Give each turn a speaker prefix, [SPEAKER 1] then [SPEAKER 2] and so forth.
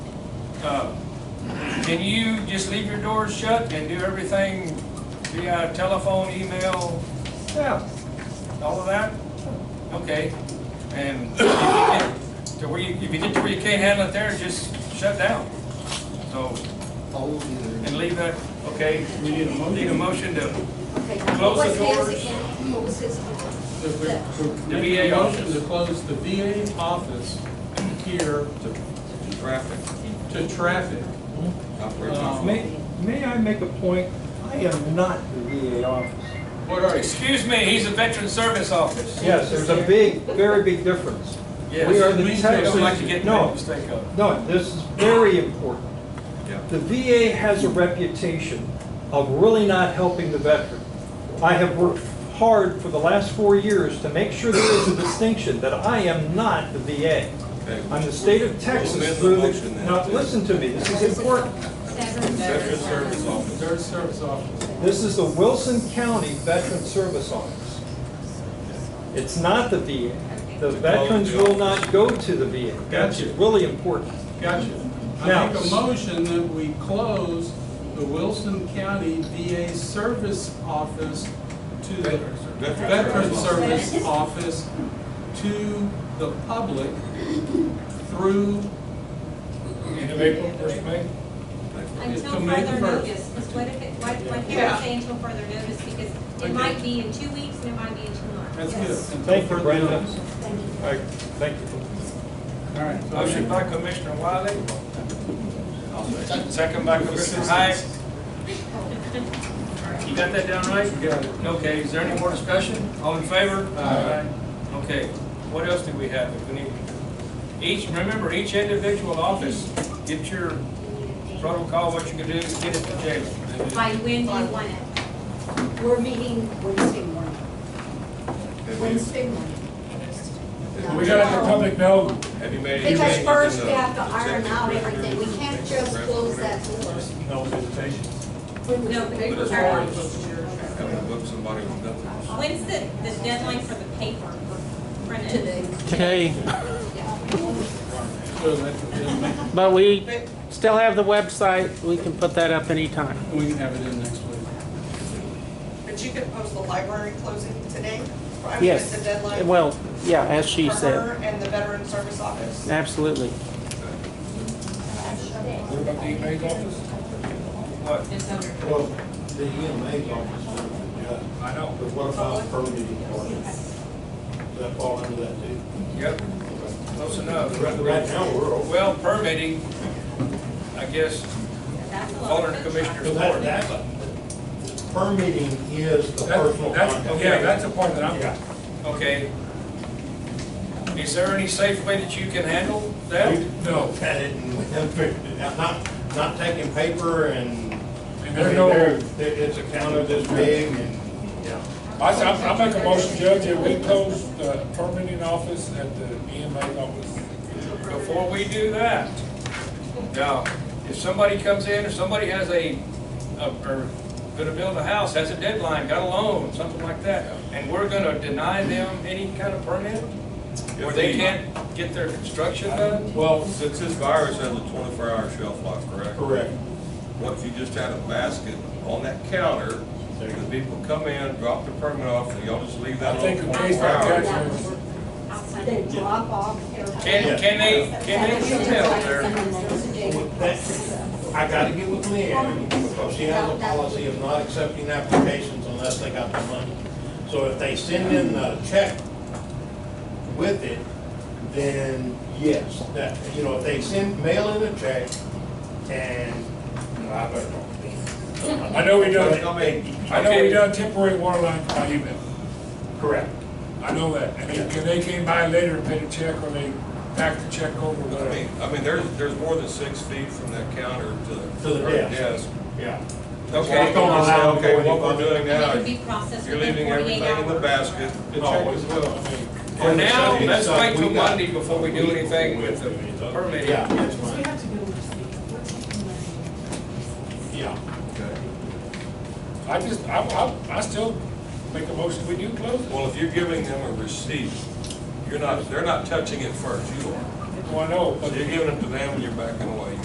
[SPEAKER 1] uh, can you just leave your doors shut and do everything via telephone, email,
[SPEAKER 2] Yeah,
[SPEAKER 1] all of that? Okay, and if you get to where you, if you get to where you can't handle it there, just shut down. So,
[SPEAKER 3] Hold either.
[SPEAKER 1] and leave that, okay?
[SPEAKER 4] We need a motion.
[SPEAKER 1] Need a motion to,
[SPEAKER 5] Okay,
[SPEAKER 1] Close the
[SPEAKER 5] what's his
[SPEAKER 1] doors.
[SPEAKER 5] again? What was his again?
[SPEAKER 4] The
[SPEAKER 1] The
[SPEAKER 4] VA
[SPEAKER 1] VA
[SPEAKER 4] motion
[SPEAKER 1] office.
[SPEAKER 4] to close the VA office here
[SPEAKER 6] to traffic,
[SPEAKER 4] to traffic.
[SPEAKER 6] operate
[SPEAKER 4] Um,
[SPEAKER 6] on-
[SPEAKER 2] Uh, may, may I make a point? I am not the VA office.
[SPEAKER 4] What are you?
[SPEAKER 1] excuse me, he's a veteran service office.
[SPEAKER 2] Yes, there's a big, very big difference.
[SPEAKER 1] Yes.
[SPEAKER 2] We are the
[SPEAKER 1] Please
[SPEAKER 2] Texas-
[SPEAKER 1] Don't like to get
[SPEAKER 2] no.
[SPEAKER 1] made a mistake of.
[SPEAKER 2] No, this is very important.
[SPEAKER 6] Yeah.
[SPEAKER 2] The VA has a reputation of really not helping the veteran. I have worked hard for the last four years to make sure there is a distinction that I am not the VA.
[SPEAKER 6] Okay.
[SPEAKER 2] I'm the state of Texas
[SPEAKER 6] amend the
[SPEAKER 2] through the,
[SPEAKER 6] motion then.
[SPEAKER 2] now, listen to me, this is important.
[SPEAKER 6] Veteran Service Office.
[SPEAKER 4] Third service office.
[SPEAKER 2] This is the Wilson County Veteran Service Office. It's not the VA. The veterans will not go to the VA. That's
[SPEAKER 4] Gotcha.
[SPEAKER 2] really important.
[SPEAKER 4] Gotcha.
[SPEAKER 2] Now-
[SPEAKER 4] I make a motion that we close the Wilson County VA Service Office to the
[SPEAKER 6] Veteran Service.
[SPEAKER 4] Veteran Service Office to the public through,
[SPEAKER 1] End of April, first of May?
[SPEAKER 4] to
[SPEAKER 7] Until
[SPEAKER 4] May the
[SPEAKER 7] further
[SPEAKER 4] first.
[SPEAKER 7] notice, because what if it, why, why can't
[SPEAKER 4] Yeah.
[SPEAKER 7] we say until further notice, because
[SPEAKER 4] Okay.
[SPEAKER 7] it might be in two weeks and it might be in two months.
[SPEAKER 4] that's good. until
[SPEAKER 2] Thank you,
[SPEAKER 4] further
[SPEAKER 2] Brenda.
[SPEAKER 4] notice.
[SPEAKER 2] All right, thank you.
[SPEAKER 4] All right. so-
[SPEAKER 1] Motion by Commissioner Wiley. Second by Commissioner Hyde. You got that down right?
[SPEAKER 4] Got it.
[SPEAKER 1] Okay, is there any more discussion? All in favor?
[SPEAKER 4] Aye.
[SPEAKER 1] Okay, what else do we have? that We need, each, remember, each individual office, get your protocol, what you can do, get it to Jalen.
[SPEAKER 7] By when do you want it?
[SPEAKER 5] We're meeting Wednesday morning.
[SPEAKER 6] Have you-
[SPEAKER 5] Wednesday morning.
[SPEAKER 6] We gotta have
[SPEAKER 5] public.
[SPEAKER 6] have you made any
[SPEAKER 5] Because
[SPEAKER 6] changes
[SPEAKER 5] first
[SPEAKER 6] in
[SPEAKER 5] we
[SPEAKER 6] the
[SPEAKER 5] have to iron
[SPEAKER 6] executive
[SPEAKER 5] out
[SPEAKER 6] director?
[SPEAKER 5] everything. We can't just close that door.
[SPEAKER 4] No visitation.
[SPEAKER 7] No, but
[SPEAKER 6] But as
[SPEAKER 7] it's
[SPEAKER 6] far
[SPEAKER 7] our-
[SPEAKER 6] as having to book somebody with nothing.
[SPEAKER 7] when's the, the deadline for the paper for printed? Today.
[SPEAKER 8] today,
[SPEAKER 4] So that's what they'll make.
[SPEAKER 8] but we still have the website. We can put that up anytime.
[SPEAKER 4] We can have it in next week.
[SPEAKER 9] But you could post the library closing today? I mean,
[SPEAKER 8] Yes.
[SPEAKER 9] Is the deadline?
[SPEAKER 8] Well, yeah, as she
[SPEAKER 9] for
[SPEAKER 8] said,
[SPEAKER 9] her And the Veteran Service Office?
[SPEAKER 8] absolutely.
[SPEAKER 1] What about the EMA's office? What?
[SPEAKER 7] It's under.
[SPEAKER 10] Well, the EMA's office,
[SPEAKER 1] I
[SPEAKER 10] yeah,
[SPEAKER 1] know.
[SPEAKER 10] but what about permitting departments? Does that fall under that too?
[SPEAKER 1] Yep, close enough.
[SPEAKER 10] Right right now, we're over.
[SPEAKER 1] Well, permitting, I guess,
[SPEAKER 7] That's a lot
[SPEAKER 1] fall
[SPEAKER 7] of
[SPEAKER 1] under
[SPEAKER 7] good
[SPEAKER 1] Commissioner's
[SPEAKER 10] So
[SPEAKER 1] court.
[SPEAKER 10] that, that's, permitting is the personal contact.
[SPEAKER 1] yeah, that's the part that
[SPEAKER 10] Yeah.
[SPEAKER 1] Okay. Is there any safe way that you can handle that?
[SPEAKER 10] No. Had it, and we haven't figured it out. not, not taking paper and.
[SPEAKER 11] And there's no-
[SPEAKER 10] There- It's a counter this big and, yeah.
[SPEAKER 11] I, I I make a motion, Judge, that we close the permitting office at the EMA office.
[SPEAKER 1] Before we do that, now, if somebody comes in, or somebody has a, a- or gonna build a house, has a deadline, got a loan, something like that, and we're gonna deny them any kind of permit? Or they can't get their construction done?
[SPEAKER 6] Well, since this virus has a twenty-four hour shelf life, correct?
[SPEAKER 10] Correct.
[SPEAKER 6] What if you just had a basket on that counter, and the people come in, drop their permit off, and y'all just leave
[SPEAKER 11] I
[SPEAKER 6] that on
[SPEAKER 11] think the
[SPEAKER 6] twenty-four
[SPEAKER 11] case by
[SPEAKER 6] hours?
[SPEAKER 11] judge, is-
[SPEAKER 7] outside.
[SPEAKER 5] They drop off. their-
[SPEAKER 1] Can, can they, can they tell their,
[SPEAKER 10] That, I gotta get with Leanne, because she has a policy of not accepting applications unless they got the money. So if they send in a check with it, then yes, that, you know, if they send, mail in a check, and, well, I better not.
[SPEAKER 11] I know we don't-
[SPEAKER 10] But, I mean,
[SPEAKER 11] I know we done temporary water line by email,
[SPEAKER 10] Correct.
[SPEAKER 11] I know that, and they, and they came by later and paid a check, or they backed the check over,
[SPEAKER 6] I mean,
[SPEAKER 11] whatever.
[SPEAKER 6] I mean, there's, there's more than six feet from that counter to the.
[SPEAKER 10] To the
[SPEAKER 6] her
[SPEAKER 10] desk. Yeah.
[SPEAKER 6] Okay,
[SPEAKER 10] Just don't
[SPEAKER 6] you say,
[SPEAKER 10] allow
[SPEAKER 6] okay,
[SPEAKER 10] them
[SPEAKER 6] what
[SPEAKER 10] going
[SPEAKER 6] we're doing now,
[SPEAKER 7] It could be processed
[SPEAKER 6] you're
[SPEAKER 7] within
[SPEAKER 6] leaving
[SPEAKER 7] forty-eight
[SPEAKER 6] everything
[SPEAKER 7] hours.
[SPEAKER 6] in the basket, the
[SPEAKER 10] No,
[SPEAKER 6] check
[SPEAKER 10] we-
[SPEAKER 6] is well, I mean.
[SPEAKER 1] for now, let's wait till
[SPEAKER 10] We got-
[SPEAKER 1] Monday before we do anything with the permitting?
[SPEAKER 10] Yeah, that's fine, yeah.
[SPEAKER 11] I just, I, I, I still make a motion, we do close it.
[SPEAKER 6] Well, if you're giving them a receipt, you're not, they're not touching it first, you are.
[SPEAKER 11] Well, I know, but
[SPEAKER 6] So you're giving it to them and you're backing away.